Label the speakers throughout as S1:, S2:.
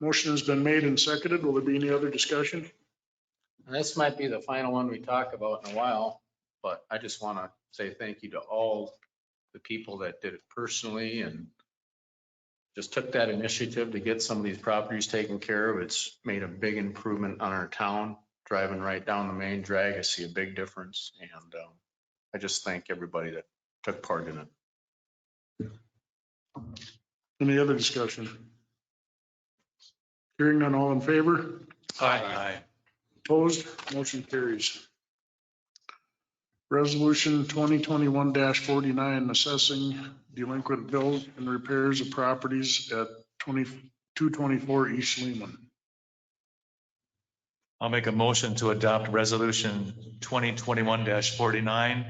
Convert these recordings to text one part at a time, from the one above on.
S1: Motion has been made and seconded. Will there be any other discussion?
S2: And this might be the final one we talk about in a while, but I just want to say thank you to all the people that did it personally and just took that initiative to get some of these properties taken care of. It's made a big improvement on our town. Driving right down the main drag, I see a big difference and um, I just thank everybody that took part in it.
S1: Any other discussion? Hearing none, all in favor?
S2: Aye.
S1: Opposed? Motion carries. Resolution 2021-49, assessing delinquent bills and repairs of properties at 20 224 East Lehman.
S3: I'll make a motion to adopt resolution twenty twenty-one forty-nine,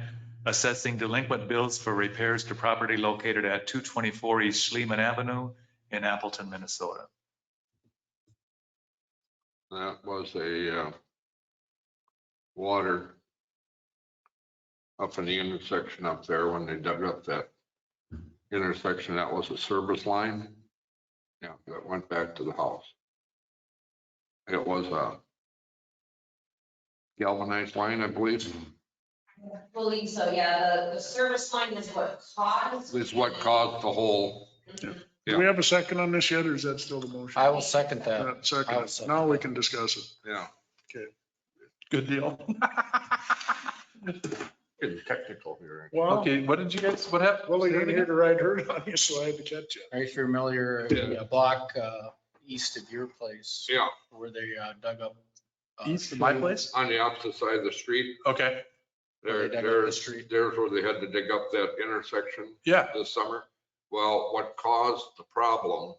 S3: assessing delinquent bills for repairs to property located at two twenty-four East Schliemann Avenue in Appleton, Minnesota.
S4: That was a uh, water up in the intersection up there when they dug up that intersection. That was a service line. Yeah, that went back to the house. It was a galvanized line, I believe,
S5: I believe so, yeah. The, the service line is what caused.
S4: is what caused the whole.
S1: Do we have a second on this yet, or is that still the motion?
S2: I will second that.
S1: Uh, Second,
S2: second.
S1: now we can discuss it.
S4: Yeah.
S6: Good deal.
S4: Getting technical here.
S1: Well,
S6: Okay, what did you guys, what happened?
S1: well, you're here to ride herd on you, so I had to catch you.
S2: Are you familiar,
S4: Yeah.
S2: yeah, block uh, east of your place
S4: Yeah,
S2: where they uh, dug up? uh,
S6: East of my place?
S4: on the opposite side of the street.
S6: Okay,
S2: Where
S4: There,
S2: they dug up the
S4: there's,
S2: street.
S4: there's where they had to dig up that intersection.
S6: yeah,
S4: this summer. Well, what caused the problem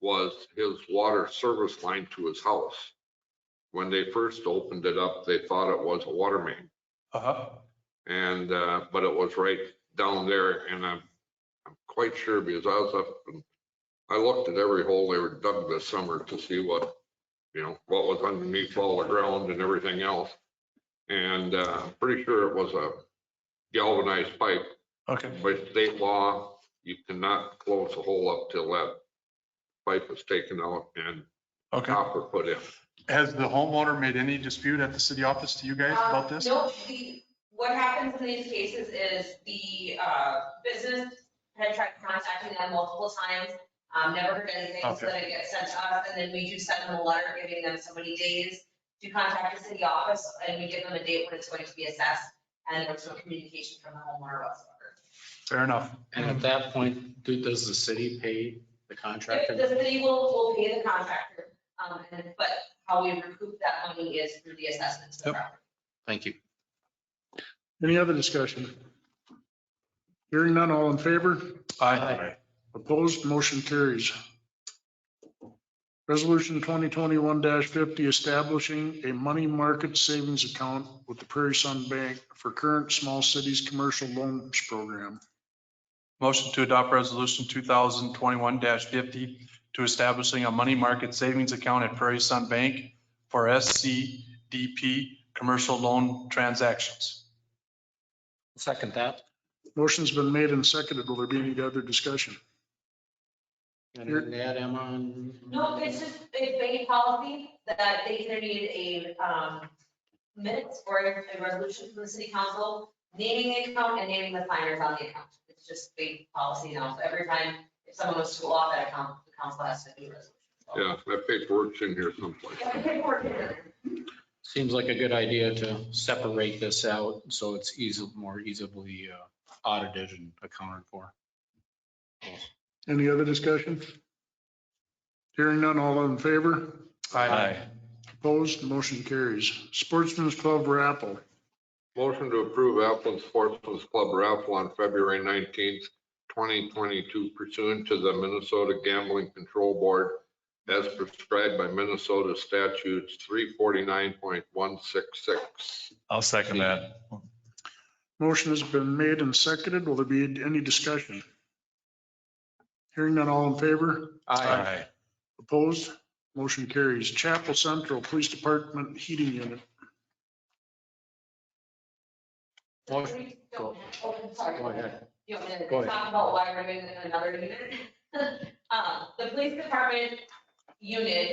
S4: was his water service line to his house. When they first opened it up, they thought it was a water main
S6: uh-huh,
S4: and, uh, but it was right down there and I'm, I'm quite sure because I was up and I looked at every hole they were dug this summer to see what, you know, what was underneath all the ground and everything else. And, uh, I'm pretty sure it was a galvanized pipe
S6: okay.
S4: by state law, you cannot close a hole up till that pipe is taken out and
S6: Okay.
S4: copper put in.
S6: Has the homeowner made any dispute at the city office to you guys about
S5: Um,
S6: this?
S5: No, the, what happens in these cases is the, uh, business had tried contacting them multiple times, um, never heard anything, so
S6: Okay.
S5: then it gets sent to us, and then we do send them a letter giving them so many days to contact us in the office, and we give them a date when it's going to be assessed, and there's no communication from the homeowner whatsoever.
S6: Fair enough.
S2: And at that point, do- does the city pay the
S5: The
S2: contractor?
S5: city will, will pay the contractor, um, and- but how we recoup that money is through the assessment to the
S6: Yep.
S5: property.
S2: Thank you.
S1: Any other discussion? Hearing none, all in favor?
S2: Aye.
S1: Opposed, motion carries. Resolution 2021-50, establishing a money market savings account with the Prairie Sun Bank for current small cities commercial loans program.
S6: Motion to adopt resolution two thousand twenty-one fifty to establishing a money market savings account at Prairie Sun Bank for SCDP commercial loan transactions.
S2: Second that.
S1: Motion's been made and seconded. Will there be any other discussion?
S2: And that, Emma. and-
S5: No, it's just, it's bank policy that they either need a, um, minutes or a resolution from the city council naming the account and naming the signers on the account. It's just bank policy now, so every time if someone was to go off that account, the council has to do a resolution. So-
S4: Yeah, that paperwork's in here someplace.
S5: Yeah, we can work it out.
S2: Seems like a good idea to separate this out so it's easy, more easily uh, audited and accounted for.
S1: Any other discussion? Hearing none, all in favor?
S3: Aye.
S1: Opposed, motion carries. Sportsman's Club Rappel.
S4: Motion to approve Appleton Sportsman's Club raffle on February nineteenth, twenty twenty-two pursuant to the Minnesota Gambling Control Board as prescribed by Minnesota statutes three forty-nine point one six six.
S3: I'll second that.
S1: Motion has been made and seconded. Will there be any discussion? Hearing none, all in favor?
S3: Aye.
S1: Opposed? Motion carries. Chapel Central Police Department Heating Unit.
S2: Motion.
S5: Oh, I'm sorry.
S2: Go ahead.
S5: You want me
S2: Go
S5: to
S2: ahead.
S5: talk about why we're doing another unit? Uh, The police department unit